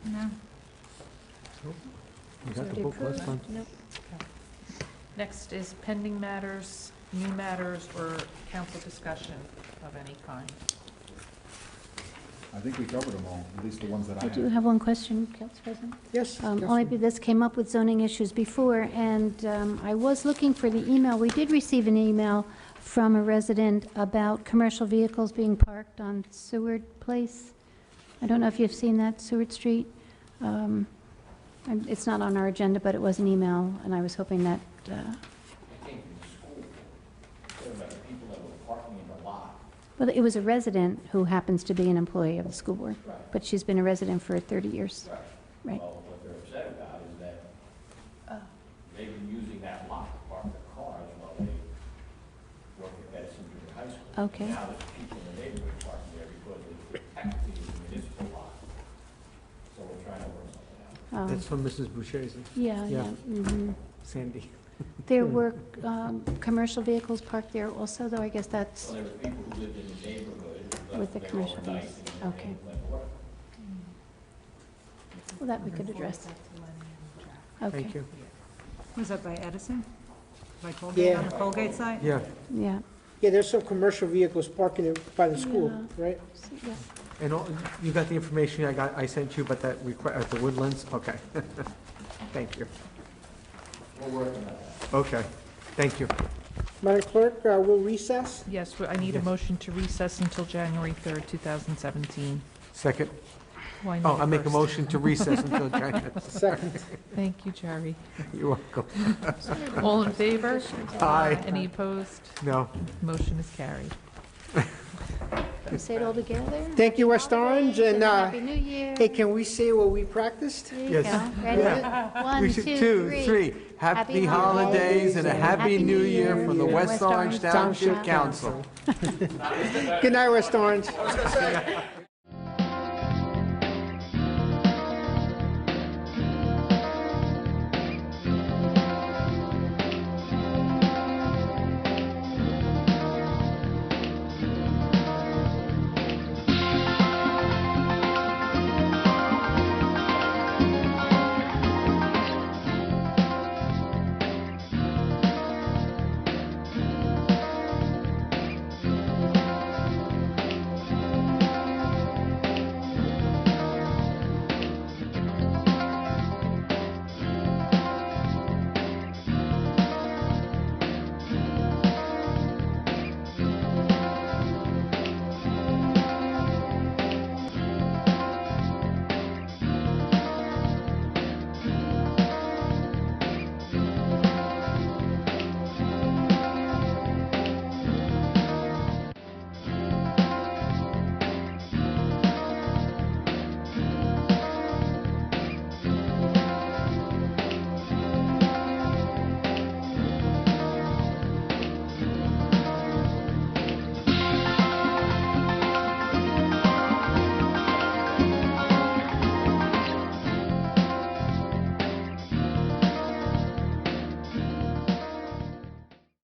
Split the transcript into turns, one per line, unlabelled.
You got the book last time?
Nope. Next is pending matters, new matters, or council discussion of any kind.
I think we covered them all, at least the ones that I
I
had.
do have one question, Council President.
Yes.
Um, Only be- this came up with zoning issues before, and um, I was looking for the email. We did receive an email from a resident about commercial vehicles being parked on Seward Place. I don't know if you've seen that, Seward Street. Um, and It's not on our agenda, but it was an email, and I was hoping that, uh, well, it was a resident who happens to be an employee of the school board, but she's been a resident for 30 years. Right.
Well, what they're upset about is that they've been using that lot to park their cars while they work at Madison Junior High School.
Okay.
Now there's people in the neighborhood parking there because it's technically a municipal lot. So we're trying to work something out.
Oh,
That's from Mrs. Boucher's,
Yeah,
yeah.
yeah. mhm.
Sandy.
There were um, commercial vehicles parked there also, though I guess
So
that's
there were people who lived in the neighborhood
With
who left
the
there
commercial
overnight
use.
and then
Okay.
they went to work.
Well, that we could address. okay.
Thank you.
Was that by Edison? By Colgate, on
Yeah.
the Colgate side?
Yeah,
Yeah.
Yeah, there's some commercial vehicles parking in- by the school,
Yeah.
right?
So, yeah.
and all- you got the information I got, I sent you, but that request, at the Woodlands, okay. Thank you. We're working on that. Okay, thank you.
Madam Clerk, uh, we'll recess.
Yes, we- I need a
Yes.
motion to recess until January 3rd, 2017.
Second,
Why
oh,
not
I make a
first?
motion to recess until January.
Second.
Thank you, Jerry.
You're welcome.
All in favor?
Aye.
Any opposed?
No,
Motion is carried.
You Say it all together.
Thank you, West Orange, and, uh,
Happy New Year.
hey, can we say what we practiced?
There you
Yes.
go. Ready? One,
we
two,
should,
three.
two, three. Happy holidays and a happy new year from the West Orange Township Council.
Good night, West Orange.